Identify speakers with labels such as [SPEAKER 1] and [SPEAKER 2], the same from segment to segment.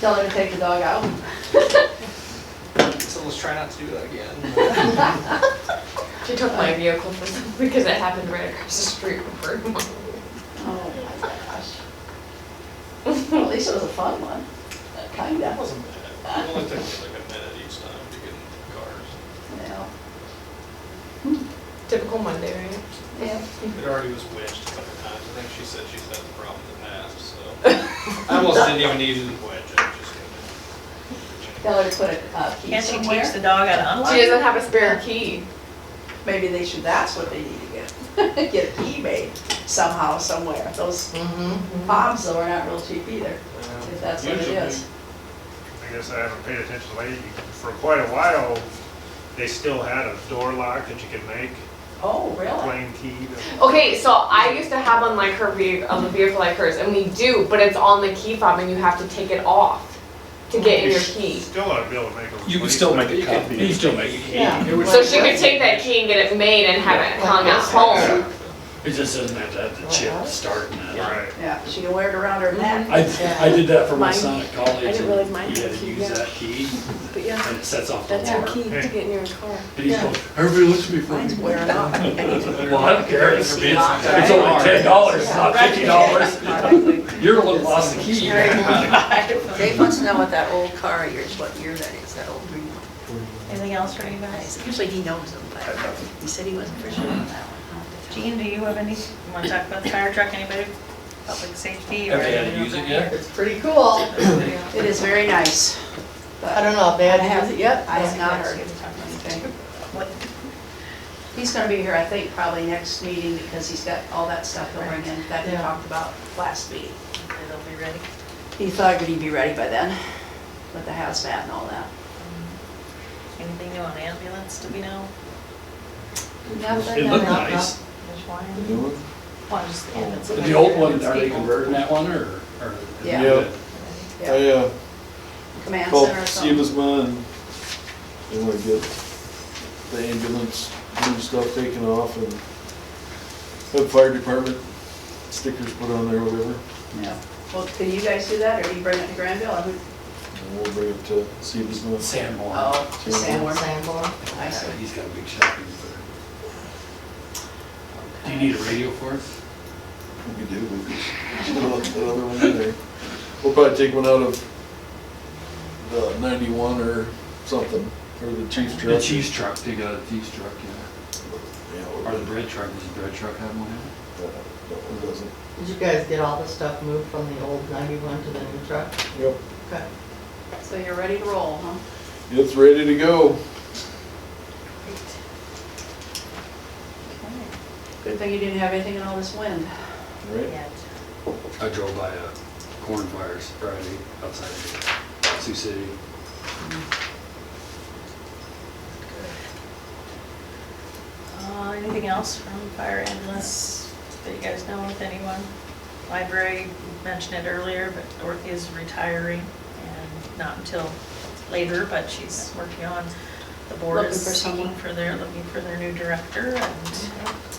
[SPEAKER 1] Tell her to take the dog out.
[SPEAKER 2] So let's try not to do that again.
[SPEAKER 3] She took my vehicle for some, because it happened right across the street from her.
[SPEAKER 1] Oh my gosh. Well, At least it was a fun one,
[SPEAKER 2] That
[SPEAKER 1] kinda,
[SPEAKER 2] wasn't bad. It only took me like a minute each time to get into the cars.
[SPEAKER 1] yeah.
[SPEAKER 3] Typical Monday, right?
[SPEAKER 1] Yeah.
[SPEAKER 2] It already was wedged a couple times. I think she said she's had the problem in the past, so. I almost didn't even need to wedge it, just.
[SPEAKER 1] Tell her to put a uh, key
[SPEAKER 4] Can't she teach the
[SPEAKER 1] somewhere.
[SPEAKER 4] dog how to unlock?
[SPEAKER 3] She doesn't have a spare key.
[SPEAKER 1] Maybe they should, that's what they need to get, get a key made somehow, somewhere. Those
[SPEAKER 3] Mm-hmm.
[SPEAKER 1] fobs though are not real cheap either,
[SPEAKER 2] Yeah.
[SPEAKER 1] if that's what it
[SPEAKER 2] Usually.
[SPEAKER 1] is.
[SPEAKER 5] I guess I haven't paid attention lately. For quite a while, they still had a door lock that you could make,
[SPEAKER 1] Oh, really?
[SPEAKER 5] plain key. to-
[SPEAKER 3] Okay, so I used to have on like her vehicle, on the vehicle like hers, and we do, but it's on the key fob and you have to take it off to get in
[SPEAKER 5] You
[SPEAKER 3] your
[SPEAKER 5] s-
[SPEAKER 3] key.
[SPEAKER 5] Still ought to be able to make a.
[SPEAKER 6] You can still make
[SPEAKER 2] You
[SPEAKER 6] a
[SPEAKER 2] could
[SPEAKER 6] copy, you can still make it.
[SPEAKER 1] Yeah.
[SPEAKER 3] So she could take that key and get it made and have it hung at home.
[SPEAKER 6] It just doesn't have to have the chip starting it.
[SPEAKER 5] Right.
[SPEAKER 1] Yeah, she can wear it around her neck.
[SPEAKER 6] I, I did that for my son at college.
[SPEAKER 7] I didn't realize mine
[SPEAKER 6] and He
[SPEAKER 7] had
[SPEAKER 6] had
[SPEAKER 7] a
[SPEAKER 6] to
[SPEAKER 7] key,
[SPEAKER 6] use
[SPEAKER 7] yeah.
[SPEAKER 6] that key
[SPEAKER 7] But yeah,
[SPEAKER 6] and it sets off the
[SPEAKER 7] that's
[SPEAKER 6] alarm.
[SPEAKER 7] our key to get in your car.
[SPEAKER 6] And he's going, everybody looks at me
[SPEAKER 1] Mine's
[SPEAKER 6] funny.
[SPEAKER 1] wearing off.
[SPEAKER 6] Well, I don't care, it's, it's it's only
[SPEAKER 2] Right.
[SPEAKER 6] ten dollars, it's not
[SPEAKER 3] Right.
[SPEAKER 6] fifty dollars. You're the one who lost the key.
[SPEAKER 8] Dave wants to know what that old car of yours, what year that is, that old green one.
[SPEAKER 4] Anything else for anybody?
[SPEAKER 8] Usually he knows them, but he said he wasn't for sure on that one.
[SPEAKER 4] Gene, do you have any, want to talk about the fire truck, anybody, public safety? or
[SPEAKER 6] Have they had to use it yet?
[SPEAKER 1] It's pretty cool. It is very nice. I don't know, bad has it yet? I have not heard anything.
[SPEAKER 4] What,
[SPEAKER 1] He's gonna be here, I think, probably next meeting because he's got all that stuff he'll bring in that he
[SPEAKER 3] Yeah.
[SPEAKER 1] talked about last meeting.
[SPEAKER 4] and they'll be ready?
[SPEAKER 1] He thought he'd be ready by then with the hazmat and all that.
[SPEAKER 4] Anything new on ambulance, do we know?
[SPEAKER 6] It looked nice.
[SPEAKER 4] Which one? Oh. The new one? just the ambulance.
[SPEAKER 6] The old one, are they converting that one or? or-
[SPEAKER 1] Yeah.
[SPEAKER 9] Yeah,
[SPEAKER 1] Yeah.
[SPEAKER 9] I uh,
[SPEAKER 1] Command
[SPEAKER 9] called
[SPEAKER 1] center or something.
[SPEAKER 9] Seamusma and they want to get the ambulance, new stuff taken off and have fire department stickers put on there or whatever.
[SPEAKER 1] Yeah. Well, can you guys do that or do you bring it to Granville? I would-
[SPEAKER 9] And we'll bring it to Seamusma.
[SPEAKER 6] Sanborn.
[SPEAKER 1] Oh, to Sanborn. I see.
[SPEAKER 6] Yeah, He's got a big shopping center. Do you need a radio for us?
[SPEAKER 9] We do, we just put that other one in there. We'll probably take one out of the ninety-one or something, or the chief's truck.
[SPEAKER 6] The cheese truck, they got a cheese truck, yeah.
[SPEAKER 9] Yeah, or
[SPEAKER 6] Or the
[SPEAKER 9] the-
[SPEAKER 6] bread truck, does the bread truck have one?
[SPEAKER 9] uh, That one doesn't.
[SPEAKER 10] Did you guys get all the stuff moved from the old ninety-one to the new truck?
[SPEAKER 9] Yep.
[SPEAKER 10] Okay.
[SPEAKER 1] So you're ready to roll, huh?
[SPEAKER 9] It's ready to go.
[SPEAKER 1] Good thing you didn't have anything in all this wind.
[SPEAKER 9] Right?
[SPEAKER 4] Yet.
[SPEAKER 6] I drove by a corn fires Friday outside of Sioux City.
[SPEAKER 4] Uh, anything else from fire ambulance that you guys know with anyone? Library, mentioned it earlier, but Dorothy is retiring and not until later, but she's working on, the board
[SPEAKER 1] Looking
[SPEAKER 4] is
[SPEAKER 1] for someone.
[SPEAKER 4] seeking for their, looking for their new director and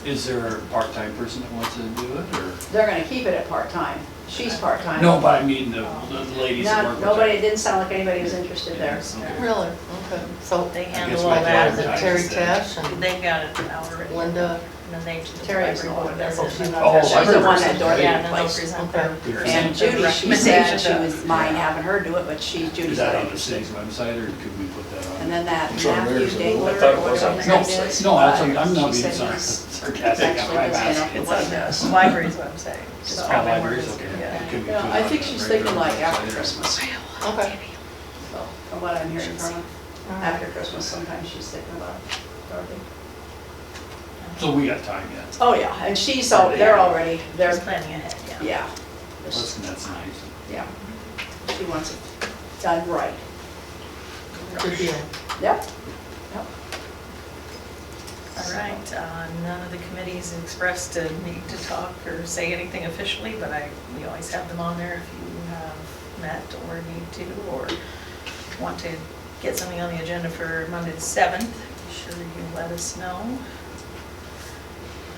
[SPEAKER 6] Is there a part-time person that wants to do it, or?
[SPEAKER 1] They're gonna keep it at part-time. She's part-time.
[SPEAKER 6] No, but I mean, the the ladies that
[SPEAKER 1] Not,
[SPEAKER 6] work with
[SPEAKER 1] nobody,
[SPEAKER 6] her.
[SPEAKER 1] it didn't sound like anybody was interested there.
[SPEAKER 6] Okay.
[SPEAKER 10] Really? Okay. So
[SPEAKER 4] they
[SPEAKER 6] guess
[SPEAKER 4] handle
[SPEAKER 6] my
[SPEAKER 4] all that.
[SPEAKER 10] is it
[SPEAKER 6] Advertise
[SPEAKER 10] Terry
[SPEAKER 6] that.
[SPEAKER 10] Tesh and
[SPEAKER 4] They've got it out already.
[SPEAKER 10] Linda?
[SPEAKER 4] And then they.
[SPEAKER 1] Terry's the one that's, she's
[SPEAKER 6] Oh,
[SPEAKER 1] not, she's
[SPEAKER 6] I've
[SPEAKER 1] the
[SPEAKER 6] heard
[SPEAKER 1] one
[SPEAKER 6] her
[SPEAKER 1] that
[SPEAKER 6] say
[SPEAKER 1] Dorothy
[SPEAKER 6] that.
[SPEAKER 4] Yeah, and then they'll
[SPEAKER 1] replaced.
[SPEAKER 4] present their.
[SPEAKER 6] Okay.
[SPEAKER 1] And
[SPEAKER 4] present their
[SPEAKER 1] Judy, she said
[SPEAKER 4] recommendations
[SPEAKER 1] she
[SPEAKER 4] to
[SPEAKER 1] was mine having her do it, but she,
[SPEAKER 6] Is
[SPEAKER 1] Judy's
[SPEAKER 6] that
[SPEAKER 1] not
[SPEAKER 6] on the
[SPEAKER 1] interested.
[SPEAKER 6] city's website, or could we put that on?
[SPEAKER 1] And then that
[SPEAKER 9] Sure,
[SPEAKER 1] Matthew
[SPEAKER 9] there's a-
[SPEAKER 1] Dangler,
[SPEAKER 9] I
[SPEAKER 6] thought it
[SPEAKER 1] or
[SPEAKER 6] was
[SPEAKER 1] whatever
[SPEAKER 6] on-
[SPEAKER 1] his
[SPEAKER 6] No,
[SPEAKER 1] name is.
[SPEAKER 6] No, that's, I'm I'm
[SPEAKER 1] she
[SPEAKER 6] not
[SPEAKER 1] said
[SPEAKER 6] being sar-
[SPEAKER 1] he's-
[SPEAKER 6] sarcastic,
[SPEAKER 1] actually
[SPEAKER 6] I'm I'm
[SPEAKER 1] doesn't
[SPEAKER 6] asking.
[SPEAKER 1] know
[SPEAKER 4] It's
[SPEAKER 1] what
[SPEAKER 4] on
[SPEAKER 1] he does.
[SPEAKER 4] the library's website. It's
[SPEAKER 6] Oh,
[SPEAKER 4] probably where
[SPEAKER 6] libraries,
[SPEAKER 4] it's-
[SPEAKER 6] okay.
[SPEAKER 4] yeah.
[SPEAKER 6] Could we
[SPEAKER 1] Yeah,
[SPEAKER 6] put it
[SPEAKER 1] I
[SPEAKER 6] on
[SPEAKER 1] think
[SPEAKER 6] the
[SPEAKER 1] she's
[SPEAKER 6] regular
[SPEAKER 1] thinking like
[SPEAKER 6] website
[SPEAKER 1] after
[SPEAKER 6] or-
[SPEAKER 1] Christmas, so
[SPEAKER 10] Okay.
[SPEAKER 1] from what I'm hearing from her. After Christmas sometime she's thinking about it, Dorothy.
[SPEAKER 6] So we got time yet,
[SPEAKER 1] Oh, yeah, and she's, al- they're already,
[SPEAKER 4] There's
[SPEAKER 1] they're,
[SPEAKER 4] planning ahead, yeah.
[SPEAKER 1] yeah.
[SPEAKER 6] that's, that's nice.
[SPEAKER 1] Yeah, she wants it done right.
[SPEAKER 10] Good deal.
[SPEAKER 1] Yep.
[SPEAKER 4] All right, uh, none of the committees expressed a need to talk or say anything officially, but I, we always have them on there if you have met or need to, or want to get something on the agenda for Monday the 7th, be sure you let us know.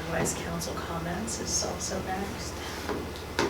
[SPEAKER 4] Otherwise, council comments is also next.